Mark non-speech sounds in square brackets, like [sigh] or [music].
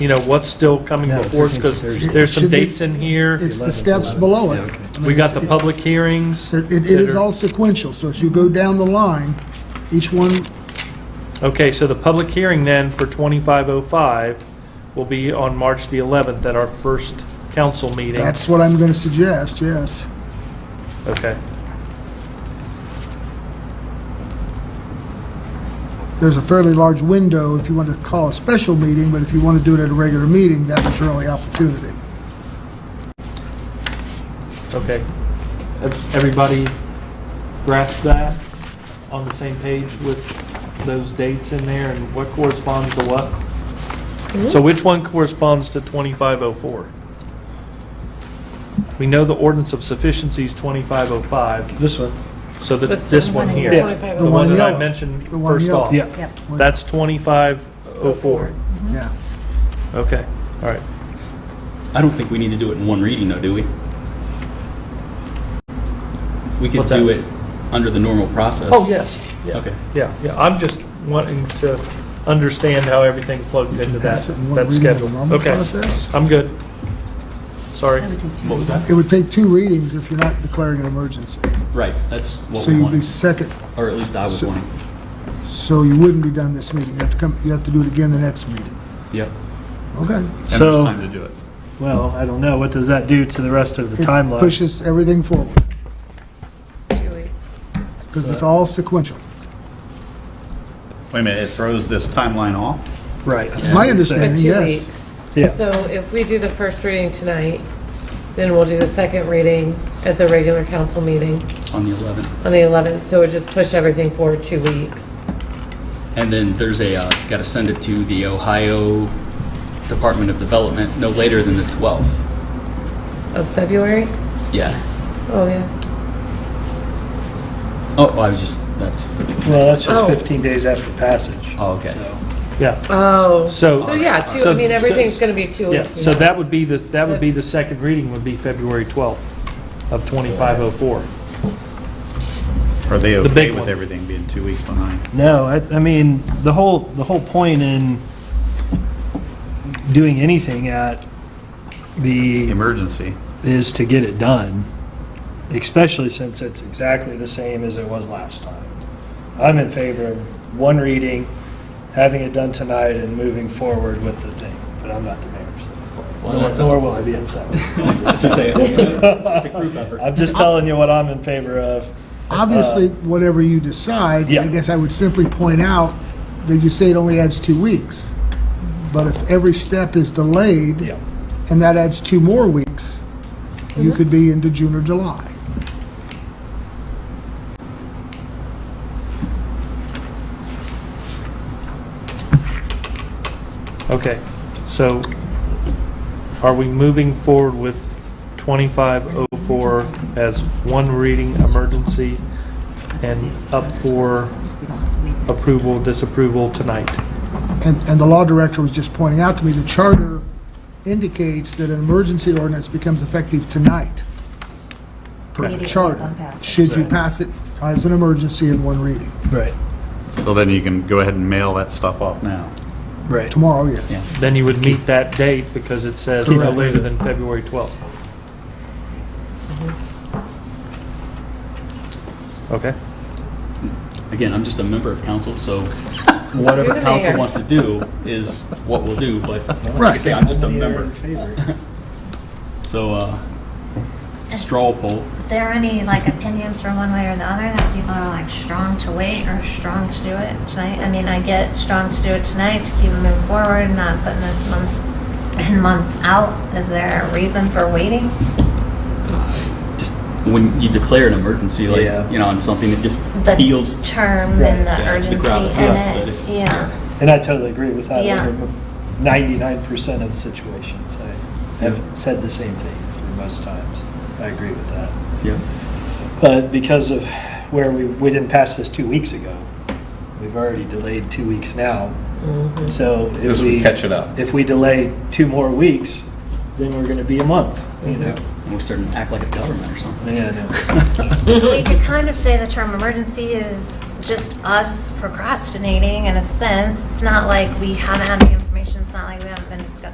you know, what's still coming No, before us, it's- because it's- it there's some should be- dates in here. It's the steps below it. We got the public hearings. It, it is that are- all sequential, so as you go down the line, each one, Okay, so the public hearing then for 2505 will be on March the 11th at our first council meeting. that's what I'm gonna suggest, yes. Okay. There's a fairly large window if you want to call a special meeting, but if you want to do it at a regular meeting, that was your only opportunity. Okay. Ev- Everybody grasp that? On the same page with those dates in there and what corresponds to what? So which one corresponds to 2504? We know the ordinance of sufficiency is 2505, This one. so that, This this one. one Yeah. here. The one that I yellow. mentioned The one first yellow. off. Yeah. Yep. That's 2504. Yeah. Okay, all right. I don't think we need to do it in one reading, though, do we? We could What's that? do it under the normal process. Oh, yes. yeah. Okay. Yeah, yeah, I'm just wanting to understand how everything plugs into that, Pass it in one that reading of the schedule. normal Okay, process. I'm good. Sorry. What was that? It would take two readings if you're not declaring an emergency. Right, that's what So we you'd be wanted, second, or at least I was wanting. so you wouldn't be done this meeting. You have to come, you have to do it again the next meeting. Yep. Okay. So- Time to do it. Well, I don't know. What does that do to the rest of the It timeline? Pushes everything forward, because it's all sequential. Wait a minute, it throws this timeline off? Right. It's my But understanding, two yes. weeks. Yeah. So if we do the first reading tonight, then we'll do the second reading at the regular council meeting On the 11th. on the 11th. So it would just push everything forward two weeks. And then there's a, uh, got to send it to the Ohio Department of Development no later than the 12th. Of February? Yeah. Oh, yeah. Oh, I was just, that's, Well, that's just Oh. 15 days after passage. oh, okay. Yeah, Oh. So- So, yeah, two, So- I mean, everything's going to be two yeah, weeks. so that would be the, that would be the That's- second reading would be February 12th of 2504. Are they The big okay one. with everything being two weeks behind? No, I, I mean, the whole, the whole point in doing anything at the Emergency. is to get it done, especially since it's exactly the same as it was last time. I'm in favor of one reading, having it done tonight, and moving forward with the thing, but I'm not the mayor, Well, that's so. a- Nor will I be upset. with it. That's what [laughs] I'm saying. It's a group effort. I'm just telling you what I'm in favor of. Obviously, whatever you decide, I Uh, Yeah. guess I would simply point out that you say it only adds two weeks. But if every step is delayed, Yeah. and that adds two more weeks, Mm-hmm. you could be into June or July. Okay, so are we moving forward with 2504 as one reading emergency and up for approval, disapproval tonight? And, and the law director was just pointing out to me, the charter indicates that an emergency ordinance becomes effective tonight. Per the Immediately charter, upon passage. should you pass it as an emergency in one reading. Right, So then you can go ahead and mail that stuff off now. right. Tomorrow, yes. Then you would meet that date because it says no Correct. later than February 12th. Okay, Again, I'm just a member of council, [laughs] so whatever You're the council mayor. wants to do is what we'll do, but like I Right. say, I'm just a You're in member. favor. [laughs] So, uh, straw poll. there any like opinions from one way or the other that people are like strong to wait or strong to do it tonight? I mean, I get strong to do it tonight to keep moving forward, not putting this months and months out. Is there a reason for waiting? Just when you declare an emergency, like, you know, on something that just The feels, term and the Yeah, the urgency gravitas in that it. it- yeah. And I totally agree with that. Yeah. over Ninety-nine percent of situations, I have said the same thing for most times. I agree with that. yeah, But because of where we, we didn't pass this two weeks ago, we've already delayed two weeks now. Mm-hmm. So if This would we. catch it up. If we delay two more weeks, then we're gonna be a month, you know? Mm-hmm. we're starting to act like a government or something. [laughs] Yeah, I know. So we could kind of say the term emergency is just us procrastinating in a sense. It's not like we haven't had the information. It's not like we haven't been discussing